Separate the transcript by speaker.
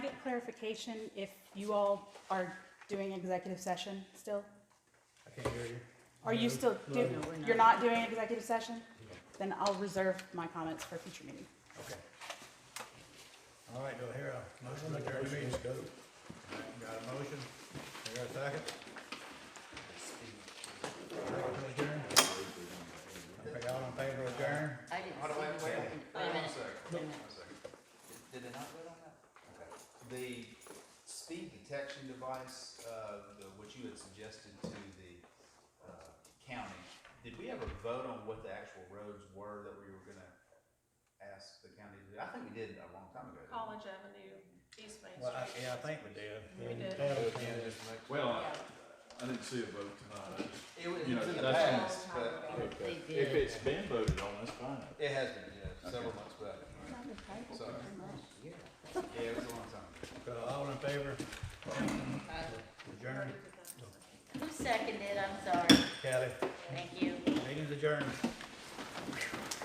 Speaker 1: clarification if you all are doing executive session still?
Speaker 2: I can't hear you.
Speaker 1: Are you
Speaker 2: No,
Speaker 1: still,
Speaker 2: no.
Speaker 1: do,
Speaker 3: No, we're not.
Speaker 1: you're not doing executive session? Then I'll reserve my comments for future meeting.
Speaker 2: Okay. All right, do I hear a motion to adjourn the meeting? All right, Got a motion? I got a second? Second to adjourn? Okay, all in favor of adjourn?
Speaker 3: I didn't see. Wait, wait, a minute. Wait a minute.
Speaker 4: Did it not go on that? Okay. The speed detection device, uh, the, what you had suggested to the, uh, county, did we ever vote on what the actual roads were that we were gonna ask the county to do? I think we did a long time ago. didn't we?
Speaker 5: College Avenue, East Main
Speaker 2: Well, I,
Speaker 5: Street.
Speaker 2: yeah, I think we did.
Speaker 5: We did.
Speaker 2: Yeah, we
Speaker 6: Yeah,
Speaker 2: did.
Speaker 6: just make- Well, I, I didn't see a vote tonight, I just,
Speaker 4: It was
Speaker 6: You know,
Speaker 4: in the
Speaker 6: that's-
Speaker 4: past, but
Speaker 3: They
Speaker 6: if
Speaker 3: did.
Speaker 6: it's been voted on, that's fine.
Speaker 4: it has been, yeah, several months back. So, yeah, it was a long time. ago.
Speaker 2: So all in favor of adjourn?
Speaker 3: Uh, Who seconded? I'm sorry.
Speaker 2: Kathy,
Speaker 3: Thank you.
Speaker 2: meeting's adjourned.